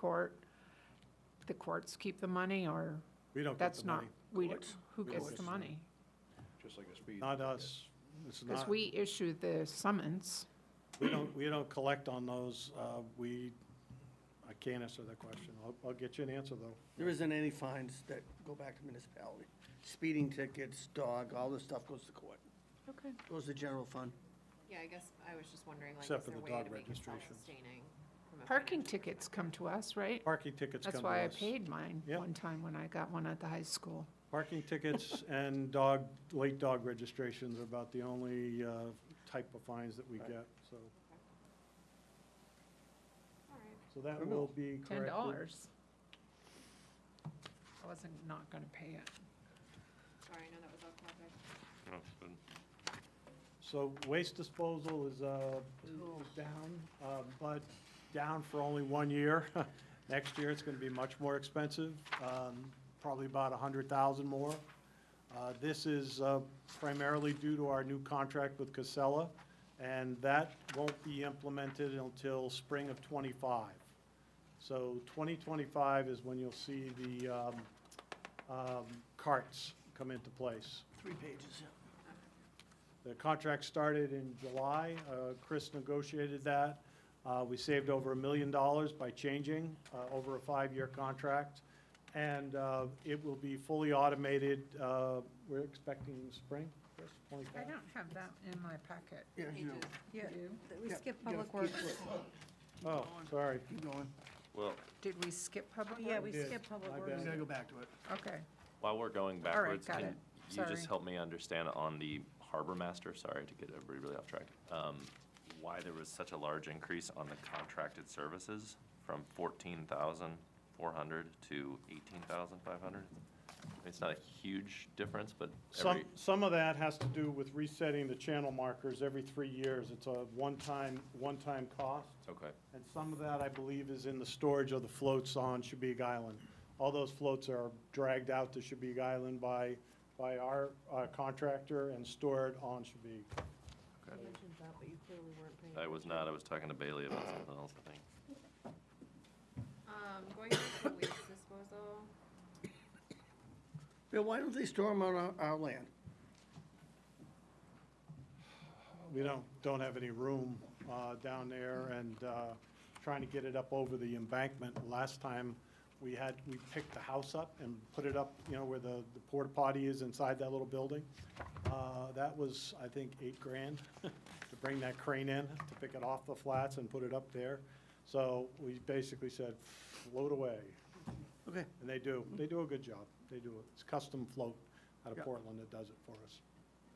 court, the courts keep the money, or We don't get that's the not, money, we, Courts? who We gets don't. the money? just like a speed. not us. It's Because not, we issue the summons. we don't, we don't collect on those. Uh, We, I can't answer that question. I'll, I'll get you an answer, though. There isn't any fines that go back to municipality. Speeding tickets, dog, all this stuff goes to court, Okay. goes to general fund. Yeah, I guess I was just wondering, like, Except is for there a the way dog to make it registrations. self-sustaining? from a Parking financial tickets come to us, right? Parking tickets come That's to why I us. paid mine Yep. one time when I got one at the high school. Parking tickets and dog, late dog registrations are about the only uh, type of fines that we Right. get, so. standpoint? All right. So that Very will be corrected. Ten dollars. I wasn't not gonna pay it. Sorry, I know that was off topic. So waste disposal is uh, is down, uh, but down for only one year. Next year, it's going to be much more expensive, um, probably about 100,000 more. Uh, This is uh, primarily due to our new contract with Casella, and that won't be implemented until spring of '25. So 2025 is when you'll see the um, um, carts come into place. Three pages, yeah. The contract started in July. Uh, Chris negotiated that. Uh, We saved over a million dollars by changing uh, over a five-year contract. And uh, it will be fully automated, uh, we're expecting spring, Chris, 25? I don't have that in my packet. Yeah, you know. Pages. You do? We skip public works. Oh, sorry. Keep going. Well, Did we skip public? yeah, we It is. skipped public My We works. bad. gotta go back to it. Okay. While we're going All right, backwards, got can it. you Sorry. just help me understand on the harbor master, sorry to get everybody really off track, um, why there was such a large increase on the contracted services from fourteen thousand four hundred to eighteen thousand five hundred? It's not a huge difference, but Some, every, some of that has to do with resetting the channel markers every three years. It's a one-time, one-time cost. okay, And some of that, I believe, is in the storage of the floats on Shabig Island. All those floats are dragged out to Shabig Island by, by our uh, contractor and stored on Shabig. You mentioned that, but you clearly weren't paying. I was not, I was talking to Bailey about something else, I think. Um, going to the waste disposal, Bill, why don't they store them on our, our land? We don't, don't have any room uh, down there and uh, trying to get it up over the embankment. Last time, we had, we picked the house up and put it up, you know, where the the porta potty is inside that little building. Uh, That was, I think, eight grand to bring that crane in, to pick it off the flats and put it up there. So we basically said, float away. Okay. And they do, they do a good job. They do, it. it's custom float out of Yeah. Portland that does it for us.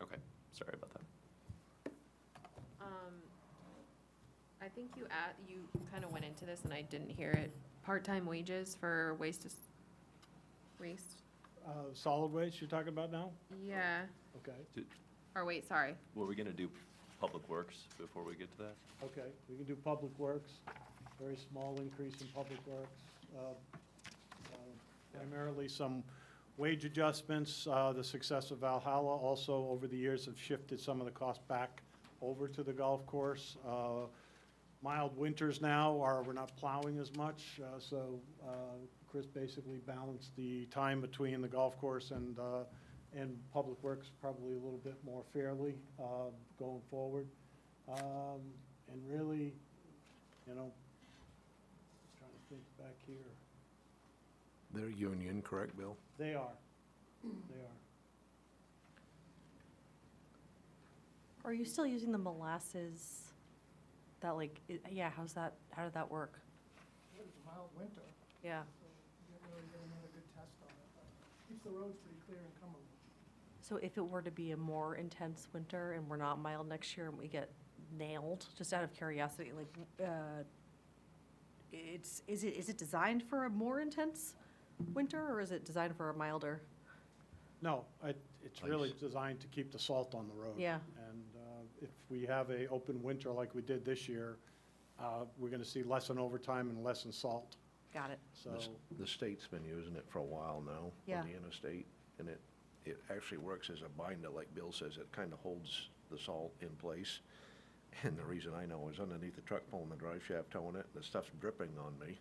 Okay, sorry about that. um, I think you at, you kind of went into this and I didn't hear it. Part-time wages for waste dis- waste? Uh, Solid waste you're talking about now? Yeah, Okay. or wait, sorry. Were we gonna do public works before we get to that? Okay, we can do Public Works, very small increase in Public Works. uh, uh, Primarily some wage adjustments, uh, the success of Valhalla also over the years have shifted some of the cost back over to the golf course. Uh, Mild winters now are, we're not plowing as much, uh, so uh, Chris basically balanced the time between the golf course and, uh, and Public Works probably a little bit more fairly uh, going forward. Um, and really, you know, trying to think back here, They're union, correct, Bill? they are, they are. Are you still using the molasses? That like, i- yeah, how's that, how did that work? It was a mild winter, Yeah. so you didn't really get another good test on it, but keeps the roads pretty clear and comfortable. So if it were to be a more intense winter and we're not mild next year and we get nailed, just out of curiosity, like, uh, it's, is it, is it designed for a more intense winter or is it designed for a milder? No, it, it's really designed to keep the salt on the road. Yeah. And uh, if we have a open winter like we did this year, uh, we're gonna see less in overtime and less in salt, Got it. so. The s- The state's been using it for a while now. Yeah. On the interstate, and it, it actually works as a binder, like Bill says, it kind of holds the salt in place. And the reason I know is underneath the truck pulling the drive shaft, towing it, the stuff's dripping on me.